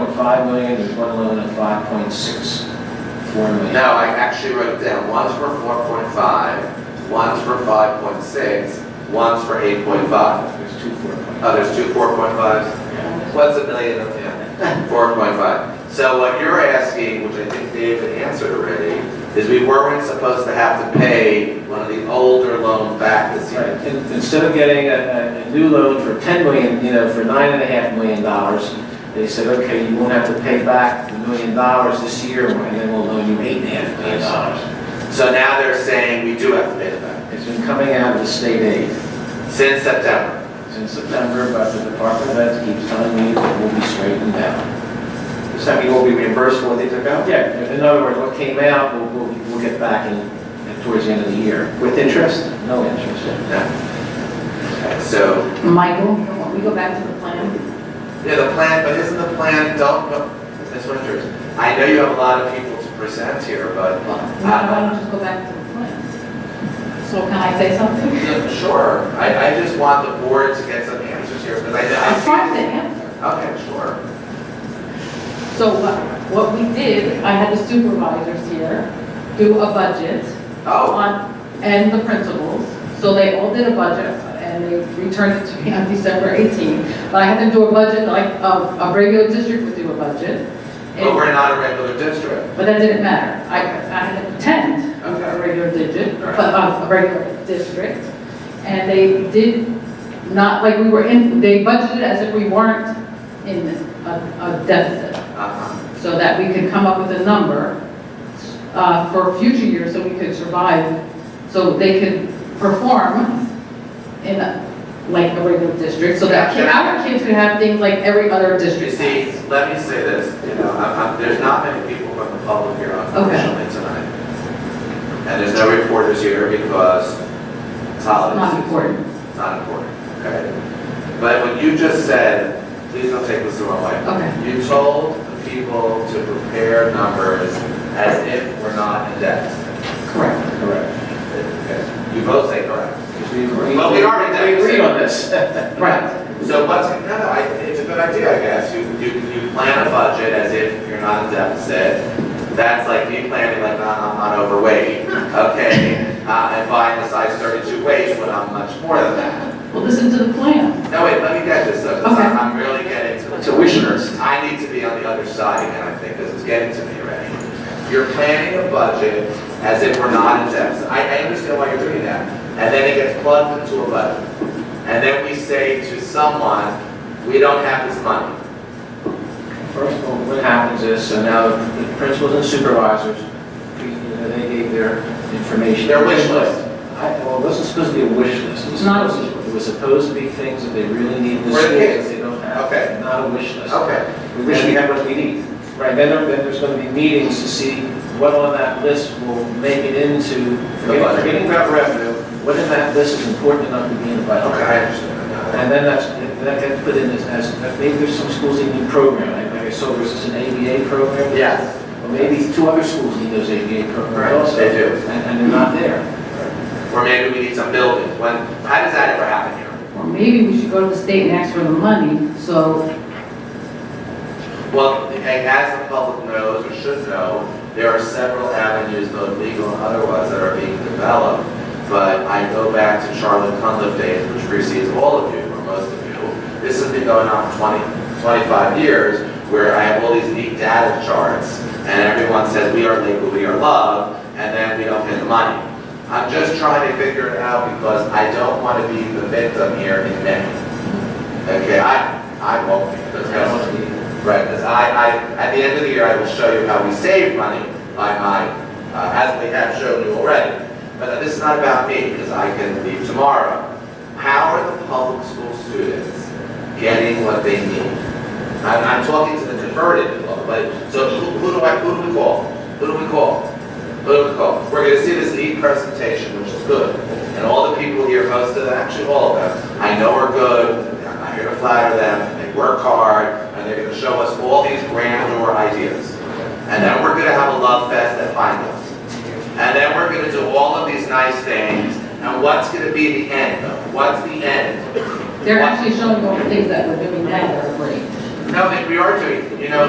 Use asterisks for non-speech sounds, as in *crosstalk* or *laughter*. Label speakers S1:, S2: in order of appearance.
S1: 1.5 million, there's one loan of 5.64 million.
S2: No, I actually wrote it down, one's for four point five, one's for five point six, one's for eight point five.
S1: There's two
S2: Oh, there's two four point fives? What's a million of, yeah, *laughs* four point five. So what you're asking, which I think David answered already, is we weren't supposed to have to pay one of the older loans back this
S1: Right,
S2: year.
S1: in- instead of getting a, a- a new loan for 10 million, you know, for nine and a half million dollars, they said, okay, you won't have to pay back the million dollars this year, and then we'll loan you eight and a half million dollars.
S2: So now they're saying we do have to pay it back,
S1: It's been coming out of the state aid
S2: since September.
S1: since September, but the Department of Ed keeps telling me that we'll be straightened out.
S3: Does that mean we'll be reimbursed for what they took out?
S1: Yeah, in other words, what came out, we'll, we'll, we'll get back in, towards the end of the year.
S3: With interest?
S1: No interest.
S2: Okay, So,
S4: Michael, can we go back to the plan?
S2: yeah, the plan, but isn't the plan, don't, no, Ms. Winters, I know you have a lot of people to present here, but. uh,
S4: Well, Why don't we just go back to the plan? So can I say something?
S2: Yeah, Sure, I, I just want the board to get some answers here, because I,
S4: I'm trying to
S2: I.
S4: answer.
S2: Okay, sure.
S4: So what- what we did, I had the supervisors here do a budget
S2: Oh,
S4: on, and the principals. So they all did a budget and they returned it to me on December 18. But I had to do a budget like a, a regular district would do a budget.
S2: but we're not a regular district.
S4: But that didn't matter. I, I had to pretend I was a regular digit, but uh, a regular district. And they did not, like, we were in, they budgeted as if we weren't in a a deficit,
S2: Uh-huh.
S4: so that we could come up with a number uh, for future years, so we could survive, so they could perform in, a- like, a regular district, so that kid- our kids could have things like every other
S2: You
S4: district
S2: see,
S4: has.
S2: let me say this, you know, I'm, I'm, there's not many people from the public here unfortunately tonight. And there's no reporters here because it's holiday
S4: Not
S2: season.
S4: important.
S2: It's not important, okay? But when you just said, please don't take this the wrong way.
S4: Okay.
S2: You told the people to prepare numbers as if we're not in deficit.
S4: Correct.
S1: Correct.
S2: You both say correct.
S1: We agree-
S2: Well, we are in
S1: We
S2: deficit.
S1: agreed on this.
S4: Right.
S2: So what's, no, no, I, it's a good idea, I guess. You, you, you plan a budget as if you're not in deficit. That's like me planning like, "Nah, I'm not overweight, okay? Uh, and buying a size thirty-two waist when I'm much more than that.
S4: Well, listen to the plan.
S2: No, wait, let me get this, though, 'cause
S4: Okay.
S2: I'm I'm really getting to.
S3: It's a wish list.
S2: I need to be on the other side again, I think, this is getting to me already. You're planning a budget as if we're not in deficit. I, I understand why you're doing that. And then it gets plugged into a budget. And then we say to someone, we don't have this money.
S1: First of all, what happens is, so now the principals and supervisors, you know, they gave their information.
S2: Their wish list.
S1: I, well, it wasn't supposed to be a wish list. It was
S4: Not a
S1: supposed-
S4: wish list.
S1: It was supposed to be things that they really need in the
S2: For the
S1: school
S2: kids.
S1: that they don't have.
S2: Okay.
S1: Not a wish list.
S2: Okay,
S3: We wish we had what we need.
S1: Right, then, there- then there's gonna be meetings to see what on that list will make it into, forgetting,
S2: budget.
S1: forgetting about revenue, what in that list is important enough to be in the budget.
S2: okay, I understand.
S1: *laughs* And then that's, that gets put in as, as, maybe there's some schools that need program, like, like I saw there's an ABA program.
S2: Yes,
S1: Well, maybe two other schools need those ADA
S2: Right,
S1: programs also.
S2: they do.
S1: And, and they're not there.
S2: or maybe we need some buildings. When, how does that ever happen here?
S4: Or maybe we should go to the state and ask for the money, so,
S2: Well, and as the public knows or should know, there are several avenues, both legal and otherwise, that are being developed. But I go back to Charlotte Cunliffe days, which precedes all of you, or most of you. This has been going on for 20, 25 years, where I have all these neat data charts, and everyone says, we are legal, we are love, and then we don't pay the money. I'm just trying to figure it out because I don't want to be the victim here in May. Okay, I, I won't be, because that's Right, because I, I, at the end of the year, I will show you how we save money by my, uh, as we have shown you already. But this is not about me, because I can leave tomorrow. How are the public school students getting what they need? I'm, I'm talking to the converted, people, but, so who, who do I, who do we call? Who do we call? Who do we call? We're gonna see this neat presentation, which is good, and all the people here, most of them, actually all of them, I know are good, I'm here to flatter them, they work hard, and they're gonna show us all these grandeur ideas. And then we're gonna have a love fest at Pine Bluff. And then we're gonna do all of these nice things, and what's gonna be the end, though? What's the end?
S4: they're actually showing all the things that we're doing now that are great.
S2: No, that we are doing, you know,